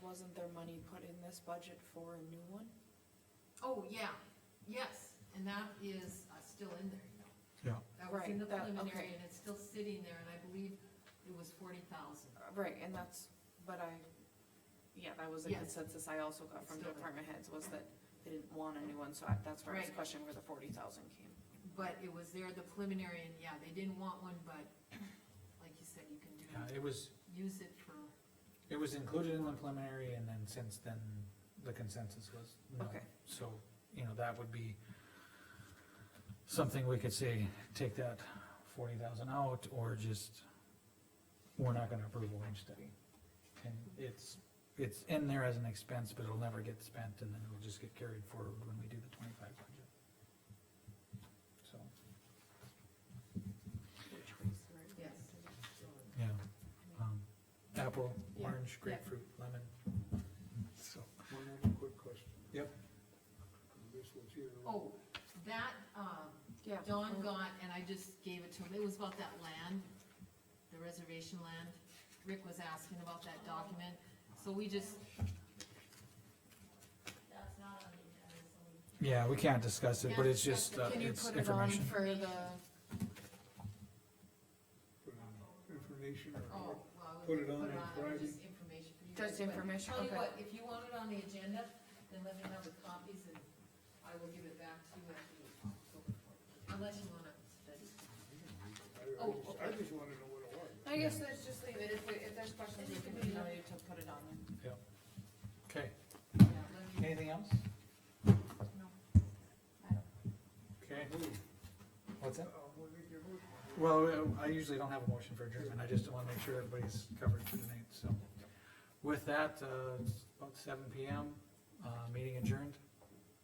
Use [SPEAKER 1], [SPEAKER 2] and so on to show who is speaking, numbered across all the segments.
[SPEAKER 1] wasn't there money put in this budget for a new one?
[SPEAKER 2] Oh, yeah, yes, and that is uh, still in there, you know.
[SPEAKER 3] Yeah.
[SPEAKER 2] That was in
[SPEAKER 1] Right,
[SPEAKER 2] the
[SPEAKER 1] that-
[SPEAKER 2] preliminary,
[SPEAKER 1] okay.
[SPEAKER 2] and it's still sitting there, and I believe it was forty thousand.
[SPEAKER 1] Uh, Right, and that's, but I, yeah, that was a
[SPEAKER 2] Yes.
[SPEAKER 1] consensus I also got
[SPEAKER 2] It's
[SPEAKER 1] from
[SPEAKER 2] still
[SPEAKER 1] the
[SPEAKER 2] there.
[SPEAKER 1] department heads, was that they didn't want a new one, so I- that's where I was
[SPEAKER 2] Right.
[SPEAKER 1] questioning where the forty thousand came.
[SPEAKER 2] But it was there, the preliminary, and yeah, they didn't want one, but like you said, you can do,
[SPEAKER 3] Yeah, Uh, it was,
[SPEAKER 2] use it for,
[SPEAKER 3] it was included in the preliminary and then since then, the consensus was no.
[SPEAKER 1] Okay.
[SPEAKER 3] So, you know, that would be something we could say, take that forty thousand out or just, we're not gonna approve a wage study. And it's, it's in there as an expense, but it'll never get spent and then it'll just get carried forward when we do the twenty-five budget. So,
[SPEAKER 2] yes.
[SPEAKER 3] yeah, um, apple, orange, grapefruit, lemon. So,
[SPEAKER 4] One other quick question.
[SPEAKER 3] Yep.
[SPEAKER 4] This was here.
[SPEAKER 2] Oh, that, um,
[SPEAKER 1] Yeah.
[SPEAKER 2] Don got, and I just gave it to him, it was about that land, the reservation land. Rick was asking about that document, so we just,
[SPEAKER 5] That's not on the agenda, so we
[SPEAKER 3] yeah, we can't discuss it, but it's just, uh,
[SPEAKER 1] Can you
[SPEAKER 3] it's
[SPEAKER 1] put it on
[SPEAKER 3] information.
[SPEAKER 1] for the,
[SPEAKER 4] Put on Information
[SPEAKER 2] oh,
[SPEAKER 4] or,
[SPEAKER 2] well,
[SPEAKER 4] Put
[SPEAKER 2] we
[SPEAKER 4] it on on Friday.
[SPEAKER 2] Just information for you. guys,
[SPEAKER 1] just
[SPEAKER 2] but
[SPEAKER 1] information,
[SPEAKER 2] Tell you
[SPEAKER 1] okay,
[SPEAKER 2] what, if you want it on the agenda, then let me know the copies and I will give it back to you after the October fourth, unless you wanna study.
[SPEAKER 4] I, I
[SPEAKER 2] Oh,
[SPEAKER 4] just, I just wanna know what it was.
[SPEAKER 1] I guess let's just leave it, if, we- if there's questions, we can email you to put it on there.
[SPEAKER 3] Okay,
[SPEAKER 2] Yeah, let me
[SPEAKER 3] anything else?
[SPEAKER 2] know.
[SPEAKER 3] Okay. What's that?
[SPEAKER 4] Uh, we'll make your motion.
[SPEAKER 3] Well, I usually don't have a motion for adjournment, I just wanna make sure everybody's covered for tonight, so. With that, uh, it's about seven P M, uh, meeting adjourned.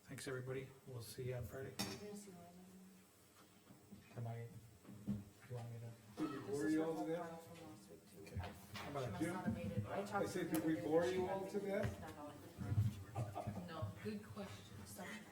[SPEAKER 3] Thanks, everybody, we'll see you on Friday. Am I, you want me to?
[SPEAKER 4] Did we bore you all to death?
[SPEAKER 3] How about
[SPEAKER 4] She must not I said, did we bore you all to death?
[SPEAKER 2] No, good question.